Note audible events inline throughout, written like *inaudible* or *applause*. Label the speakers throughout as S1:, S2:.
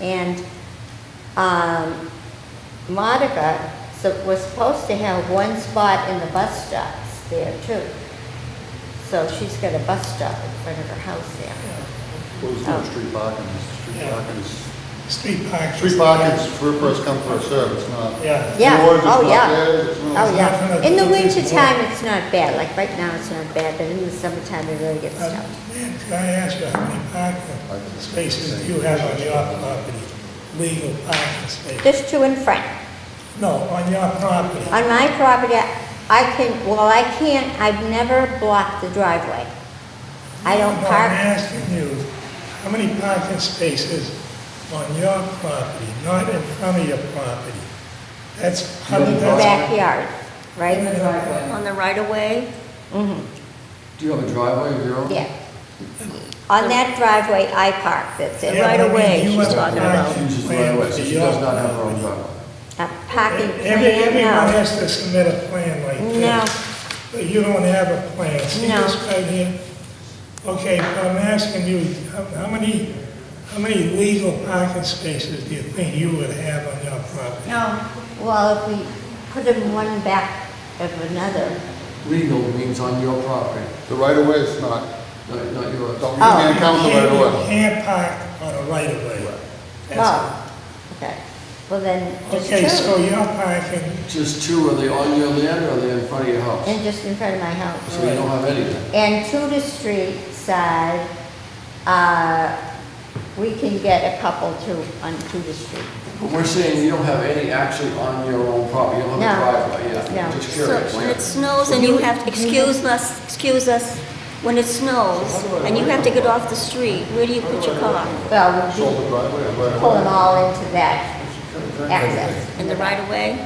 S1: And um, Monica so- was supposed to have one spot in the bus stops there too. So she's got a bus stop in front of her house there.
S2: Well, there's
S1: Oh.
S2: no street parking, street
S3: Yeah.
S2: parking is,
S3: Street parking.
S2: street parking's for first come, first served, it's not.
S3: Yeah.
S1: Yeah,
S2: Yours is
S1: oh,
S2: not
S1: yeah.
S2: theirs, it's not-
S1: Oh, yeah. In the
S3: Not gonna-
S1: wintertime, it's not bad, like right now, it's not bad, but in the summertime, it really gets
S3: Uh,
S2: Um,
S1: tough.
S3: Lynn, Can I ask you, how many
S2: I
S3: parking
S2: think it's the
S3: spaces
S2: same.
S3: do you have on your property? Legal parking space?
S1: Just to and front.
S3: No, on your property.
S1: On my property, I can, well, I can't, I've never blocked the driveway. I don't
S3: No, I'm
S1: park,
S3: asking you, how many parking spaces on your property, not in front of your property? That's
S1: in
S3: hundred
S1: the
S3: thousand.
S1: backyard,
S4: In
S1: right?
S4: the driveway.
S5: On the right of way?
S1: Mhm,
S4: Do you have a driveway of your own?
S1: yeah. On that driveway, I park, that's it.
S5: Yeah. right of way she's talking about.
S4: She's driveway, so she does not have her own driveway.
S1: A parking
S3: Every- Everyone
S1: plan,
S3: has to submit a plan like
S1: no.
S3: this.
S1: No,
S3: But you don't have a plan, see
S1: No.
S3: this right here? Okay, but I'm asking you, how how many, how many legal parking spaces do you think you would have on your property?
S5: No.
S1: well, if we put them one back of another,
S4: Legal means on your property,
S2: The right of way is not,
S4: not not yours.
S2: don't, you
S1: Oh.
S2: can't count the right
S3: You
S2: of
S3: can't- You
S2: way.
S3: can't park on a right of way. That's
S1: well, oh, okay. Well, then,
S3: it.
S1: just
S3: Okay, so
S1: two,
S3: you're parking,
S4: Just two, are they on your land or are they in front of your house?
S1: and just in front of my house.
S4: So you don't have anything.
S1: And to the street side, uh, we can get a couple to, on to the street.
S4: But we're saying you don't have any actually on your own property, you don't have a
S1: No.
S4: driveway, yeah.
S1: No.
S4: Just
S5: So
S4: curious.
S5: when it snows and you have, excuse us, excuse us, when it snows and you have to get off the street, where do you put your car?
S1: Well,
S2: Shoulder
S1: we'll
S2: driveway, or
S1: be-
S2: right
S1: pull them
S2: of
S1: all into that
S2: way.
S1: access.
S5: In the right of way?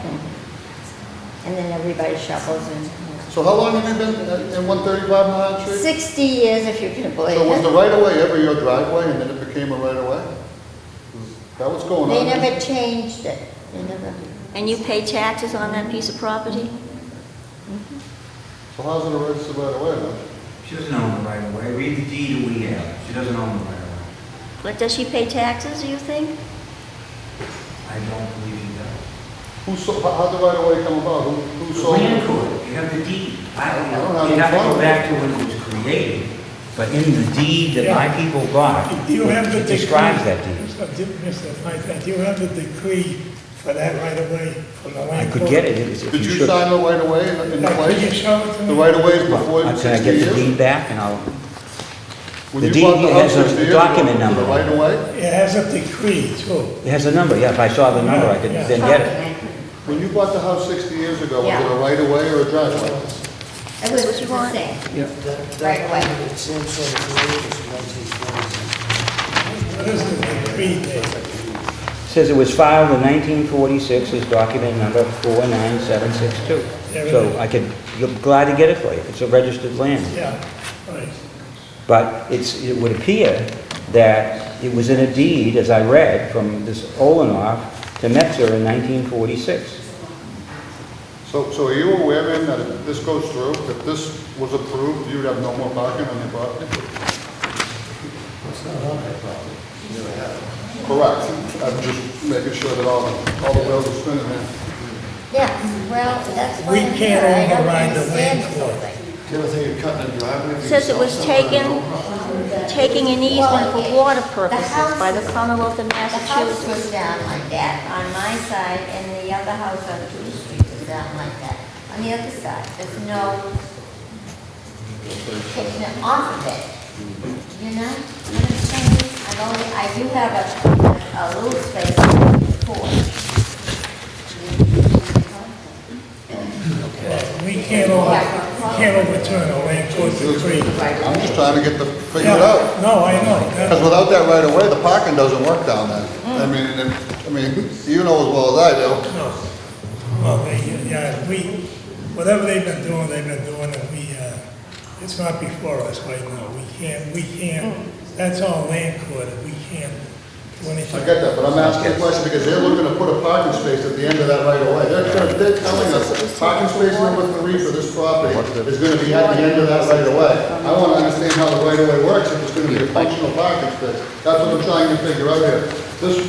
S1: And then everybody shovels in.
S2: So how long have you been at- in one thirty-five Mount Street?
S1: Sixty years, if you can believe
S2: So was the
S1: it.
S2: right of way ever your driveway and then it became a right of way? Is That was going on.
S1: They never changed it. They never,
S5: And you pay taxes on that piece of property?
S2: So how's it a registered right of way then?
S6: She doesn't own the right of way. Read the deed we have. She doesn't own the right of way.
S5: But does she pay taxes, do you think?
S6: I don't believe she does.
S2: Who sold, how- how'd the right of way come about? Who, who
S6: The
S2: sold
S6: land
S2: it?
S6: court, you have the deed. I
S2: I
S6: don't
S2: don't have
S6: know. You
S2: it in
S6: have to
S2: front of
S6: go
S2: me.
S6: back to when it was created, but in the deed that my people got,
S3: do you have the
S6: it
S3: decree.
S6: describes that deed.
S3: Mr. Di- Mr. Franklin, do you have the decree for that right of way from the
S6: I
S3: land
S6: could
S3: court?
S6: get it if if
S2: Did
S6: you
S2: you
S6: should.
S2: sign the right of way in- in
S3: Now, Could you
S2: place?
S3: show it to me?
S2: The right of way is before
S6: Uh, Can I
S2: sixty
S6: get the
S2: years?
S6: deed back and I'll,
S2: When
S6: The
S2: you
S6: deed
S2: bought the
S6: has
S2: house
S6: a
S2: 60 years ago,
S6: document
S2: was it
S6: number.
S2: Right of way?
S3: It has a decree too.
S6: it has a number, yeah, if I saw the number, I could
S3: Yeah.
S6: then get it.
S2: When you bought the house 60 years ago, was it
S1: Yeah.
S2: a right of way or a driveway?
S1: It was the same. Right away.
S3: What is the decree there?
S6: Says it was filed in 1946, is document number 49762. So I could, I'm glad to get it for you. It's a registered land.
S3: Yeah, right.
S6: But it's, it would appear that it was in a deed, as I read, from this Olenoff to Metzer in 1946.
S2: So, so are you aware then that if this goes through, if this was approved, you'd have no more parking on your property? Correct. I'm just making sure that all, the- all the wheels are spinning there.
S1: Yeah, well, that's why
S3: We
S1: I'm here.
S3: can't
S1: I don't
S3: override the
S1: understand
S3: land
S1: this whole thing.
S4: The other thing, you're cutting a driveway for
S5: Says it
S4: yourself
S5: was
S4: somewhere on your
S5: taken,
S4: own property.
S5: taking an easement for water purposes by the Commonwealth of
S1: The house
S5: Massachusetts.
S1: was down like that on my side, and the other house on Tudor Street was down like that. On the other side, there's no taking it off of it, you know? You know what I'm saying? I've only, I do have a, a little space for.
S3: We can't over, we can't overturn a land court decree.
S2: I'm just trying to get the, figure it
S3: Yeah,
S2: out.
S3: No, I know.
S2: Because
S3: that-
S2: without that right of way, the parking doesn't work down there. I mean, and- I mean, *laughs* you know as well as I do.
S3: no. Well, they, yeah, we, whatever they've been doing, they've been doing, and we, uh, it's not before us right now. We can't, we can't, that's all land court, we can't do anything.
S2: I get that, but I'm asking a question because they're looking to put a parking space at the end of that right of way. They're, tell- they're telling us that parking space number three for this property is gonna be at the end of that right of way. I wanna understand how the right of way works, if it's gonna be a functional parking space. That's what I'm trying to figure out here. This